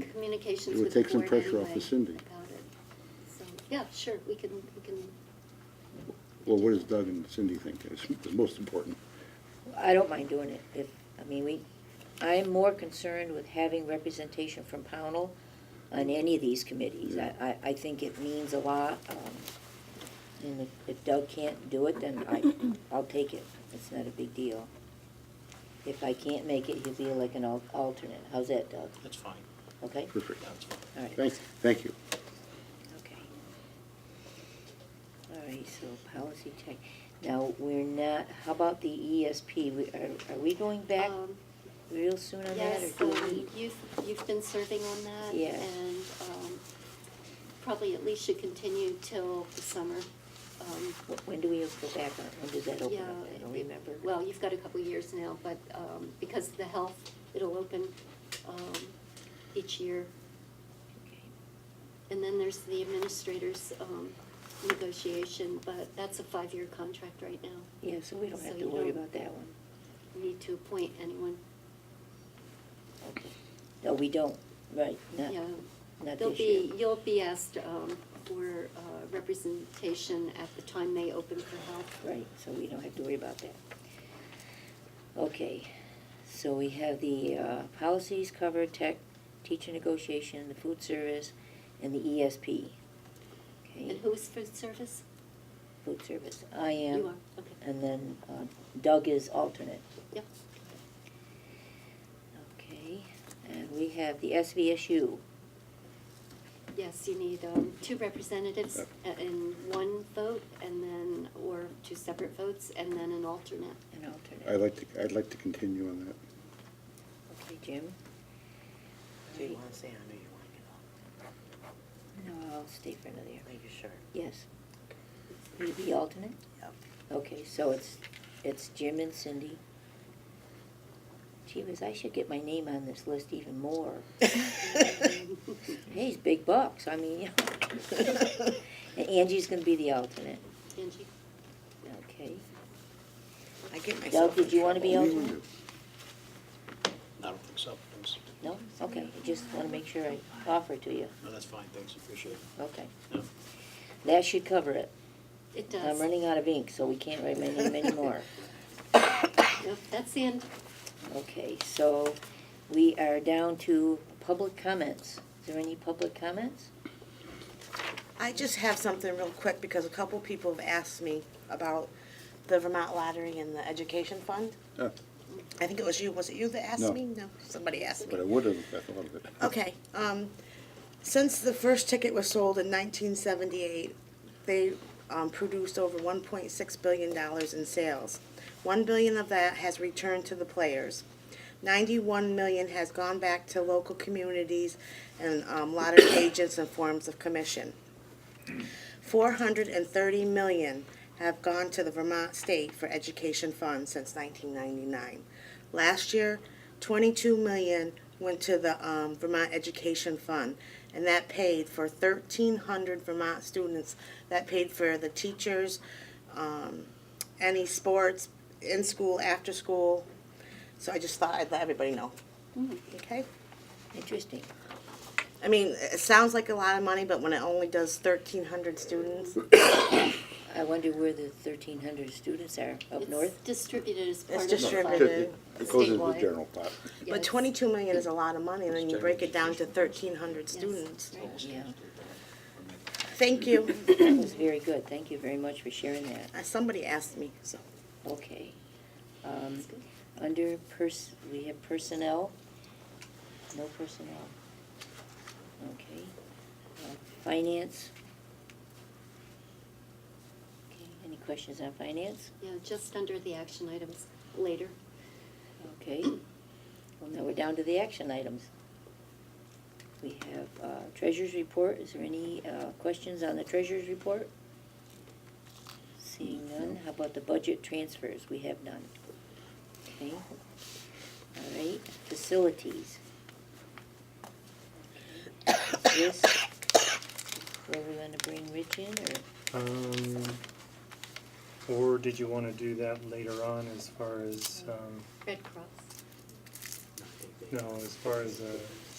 communications It would with the take some board pressure off anyway of Cindy. about it. So, yeah, sure, we can, we can, Well, what does Doug and Cindy think is, is most important? I don't mind doing it if, I mean, we, I'm more concerned with having representation from Pownell on any of these committees. I, I, I think it means a lot, um, and if- if Doug can't do it, then I, I'll take it. It's not a big deal. If I can't make it, he'll be like an al- alternate. How's that, Doug? That's fine, Okay? Perfect. that's fine. All right. Thank, thank you. Okay. All right, so policy check. Now, we're not, how about the ESP? We, are, are we going back um, real soon on that, or yes, do we um, need? you've, you've been serving on that. Yeah. And, um, probably at least should continue till the summer. Um, Wh- When do we go back on, it? when does that open Yeah. up? I don't it- remember. Well, you've got a couple years now, but, um, because of the health, it'll open, um, each year. Okay. And then there's the administrator's, um, negotiation, but that's a five-year contract right now. Yeah, so we don't So have to you worry don't- about that one. You Need to appoint anyone, Okay. No, we don't, right, not, yeah. not They'll this year. be, you'll be asked, um, for, uh, representation at the time they open for health. Right, so we don't have to worry about that. Okay, so we have the uh, policies covered, tech, teacher negotiation, the food service, and the ESP. Okay, And who's for service? food service, I You am, are, okay, and then uh, Doug is alternate. yep. Okay, and we have the SVSU. Yes, you need um, two representatives Yep. a- in one vote and then, or two separate votes and then an alternate. An alternate. I'd like to, I'd like to continue on that. Okay, Jim? Do you want to say, I know you want to get off? No, I'll stay for another year. Are you sure? Yes. Will you be alternate? Yep. Okay, so it's, it's Jim and Cindy. Gee whiz, I should get my name on this list even more. Hey, he's big bucks, I mean, and Angie's gonna be the alternate, Angie? okay. I get myself did in you wanna be trouble. What do you wanna do? I don't think so, Thanks. No? Okay, I just wanna make sure I offer to you, no, that's fine, thanks, appreciate it. okay. No. That should cover it. It I'm does. running out of ink, so we can't write my name anymore. Yep, That's the end. Okay, so we are down to public comments. Is there any public comments? I just have something real quick because a couple people have asked me about the Vermont Lottery and the Education Fund. Ah, I think it was you, was it you that asked No. me? No, somebody asked me. But I would have, if I thought of it. Okay, um, since the first ticket was sold in nineteen seventy-eight, they, um, produced over one point six billion dollars in sales. One billion of that has returned to the players. Ninety-one million has gone back to local communities and, um, lottery agents and forms of commission. Four hundred and thirty million have gone to the Vermont State for Education Fund since nineteen ninety-nine. Last year, twenty-two million went to the um, Vermont Education Fund, and that paid for thirteen hundred Vermont students. That paid for the teachers, um, any sports, in school, after school. So I just thought I'd let everybody know. Mm-hmm. Okay. Interesting. I mean, it sounds like a lot of money, but when it only does thirteen hundred students, I wonder where the thirteen hundred students are, up It's north? Distributed as part it's of the fund. It- distributed. It it goes into the Statewide. general pot. Yeah, But it's- twenty-two million is a lot of money, and then you break it down to thirteen hundred Yes. students. Right. Yeah, Thank you. that was very good. Thank you very much for sharing that. Uh, Somebody asked me, so. Okay. Um, That's good. under pers, we have personnel? No personnel. Okay. Uh, Finance? Okay, any questions on finance? Yeah, just under the action items later. Okay. Well, now we're down to the action items. We have uh, treasurer's report. Is there any uh, questions on the treasurer's report? Seeing none. How about the budget transfers? We have none. Okay. All right, facilities. This, where we want to bring Rich in, or, Um, or did you wanna do that later on as far as, um, Oh, Red Cross. no, as far as, uh, Mm-hmm.